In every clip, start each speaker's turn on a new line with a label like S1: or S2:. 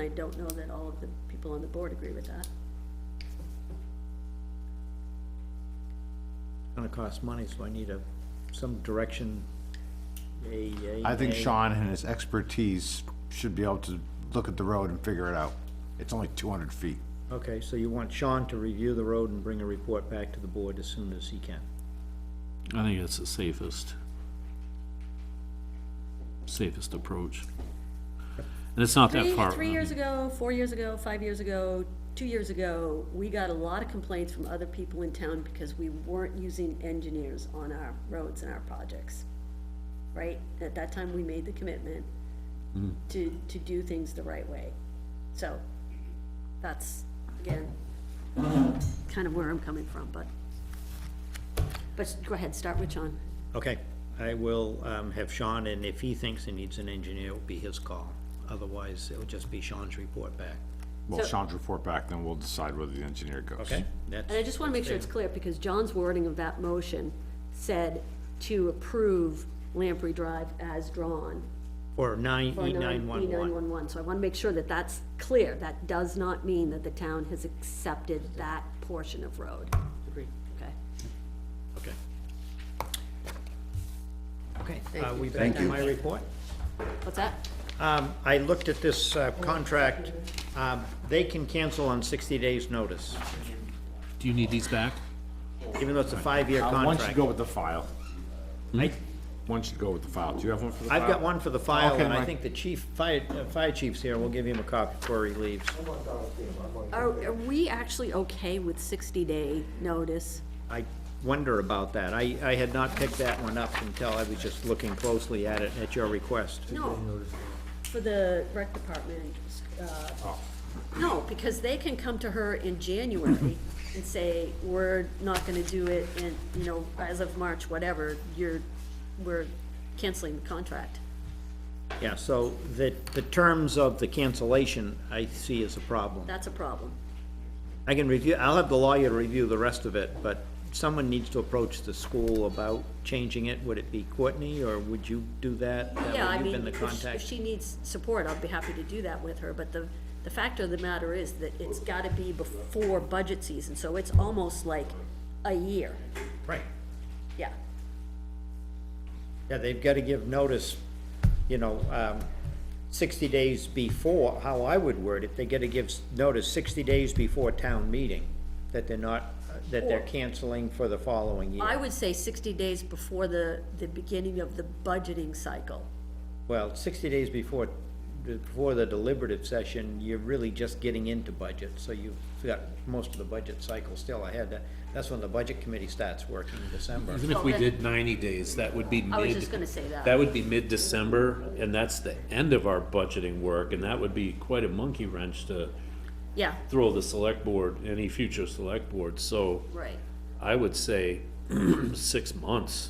S1: I don't know that all of the people on the board agree with that.
S2: gonna cost money, so I need a, some direction, a, a.
S3: I think
S2: a-
S3: Sean and his expertise should be able to look at the road and figure it out. It's only two hundred feet.
S2: Okay, so you want Sean to review the road and bring a report back to the board as soon as he can.
S4: I think that's the safest, safest approach. And it's not that
S1: Three,
S4: far.
S5: uh-huh.
S1: three
S4: I
S1: years
S4: mean,
S1: ago, four years ago, five years ago, two years ago, we got a lot of complaints from other people in town because we weren't using engineers on our roads and our projects. Right? At that time, we made the commitment to, to do things the right way. So, that's, again, kind of where I'm coming from, but. But go ahead, start with Sean.
S2: Okay, I will, um, have Sean, and if he thinks he needs an engineer, it'll be his call. Otherwise, it'll just be Sean's report back,
S3: Well,
S1: So-
S3: Sean's report back, then we'll decide whether the engineer goes.
S2: okay? That's,
S1: And I just want to make sure it's clear, because John's wording of that motion said to approve Lamprey Drive as drawn.
S2: or nine,
S1: for
S2: E
S1: nine-
S2: nine one one.
S1: E911. so I want to make sure that that's clear. That does not mean that the town has accepted that portion of road. Agreed. Okay.
S2: Okay.
S1: Okay.
S2: Are Uh, we back to my report?
S1: What's that?
S2: Um, I looked at this uh, contract, um, they can cancel on sixty days' notice,
S4: Do you need these back?
S2: even though it's a five-year
S3: Uh,
S2: contract.
S3: Once you go with the file,
S2: I-
S3: once you go with the file, do you have one for the file?
S2: I've got one for the file,
S3: Okay,
S2: and I
S3: Mike.
S2: think the chief, fire, uh, fire chief's here, we'll give him a copy before he leaves.
S1: Are, are we actually okay with sixty-day notice?
S2: I wonder about that, I, I had not picked that one up until I was just looking closely at it at your request.
S1: No, for the rec department, uh,
S2: Oh.
S1: no, because they can come to her in January and say, we're not gonna do it in, you know, as of March, whatever, you're, we're canceling the contract.
S2: Yeah, so the, the terms of the cancellation I see as a problem.
S1: That's a problem.
S2: I can review, I'll have the lawyer review the rest of it, but someone needs to approach the school about changing it, would it be Courtney, or would you do that? That way
S1: Yeah, I
S2: you've
S1: mean,
S2: been the
S1: if she-
S2: contact.
S1: if she needs support, I'll be happy to do that with her, but the, the fact of the matter is that it's gotta be before budget season, so it's almost like a year,
S2: Right.
S1: yeah.
S2: Yeah, they've got to give notice, you know, um, sixty days before, how I would word it, they got to give s- notice sixty days before town meeting, that they're not, uh, that they're
S1: Or-
S2: canceling for the following
S1: I
S2: year.
S1: would say sixty days before the, the beginning of the budgeting cycle.
S2: Well, sixty days before, before the deliberative session, you're really just getting into budget, so you've got most of the budget cycle still ahead. That- That's when the budget committee starts working in December.
S5: Even if we
S1: Okay.
S5: did ninety days, that would be mid.
S1: I was just gonna say that.
S5: That would be mid-December, and that's the end of our budgeting work, and that would be quite a monkey wrench to
S1: Yeah,
S5: throw the select board, any future select board, so
S1: right.
S5: I would say six months,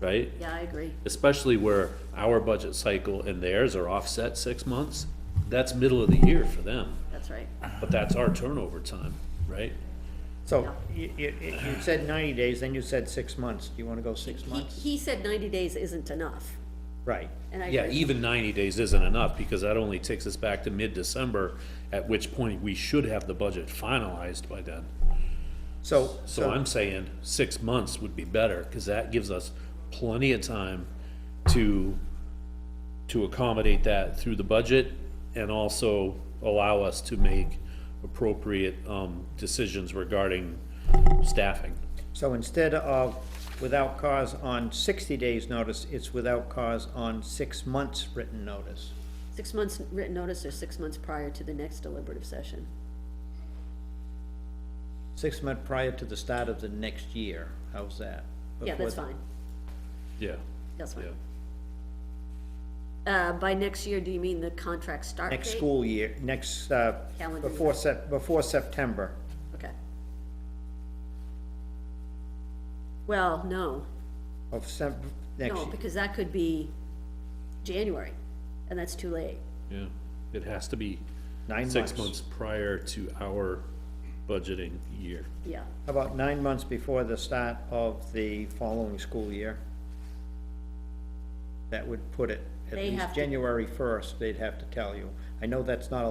S5: right?
S1: Yeah, I agree.
S5: Especially where our budget cycle and theirs are offset six months, that's middle of the year for them,
S1: That's right.
S5: but that's our turnover time, right?
S2: So, you, you, you said ninety days, then you said six months, do you want to go six
S1: He,
S2: months?
S1: he said ninety days isn't enough,
S2: Right.
S1: and I
S5: Yeah,
S1: agree.
S5: even ninety days isn't enough, because that only takes us back to mid-December, at which point we should have the budget finalized by then.
S2: So,
S5: So I'm saying six months would be better, because that gives us plenty of time to, to accommodate that through the budget, and also allow us to make appropriate, um, decisions regarding staffing.
S2: So instead of without cause on sixty days' notice, it's without cause on six months' written notice.
S1: Six months written notice or six months prior to the next deliberative session.
S2: Six months prior to the start of the next year, how's that?
S1: Yeah, that's
S2: Before-
S1: fine.
S5: Yeah,
S1: That's
S5: yeah.
S1: fine. Uh, by next year, do you mean the contract start date?
S2: Next school year, next, uh,
S1: Calendar year.
S2: before Sep- before September.
S1: Okay. Well, no,
S2: Of Sep- next,
S1: no, because that could be January, and that's too late.
S5: Yeah, it has to be
S2: nine
S5: six
S2: months.
S5: months prior to our budgeting year.
S1: Yeah,
S2: How About nine months before the start of the following school year. That would put it, at
S1: They have
S2: least
S1: to-
S2: January first, they'd have to tell you. I know that's not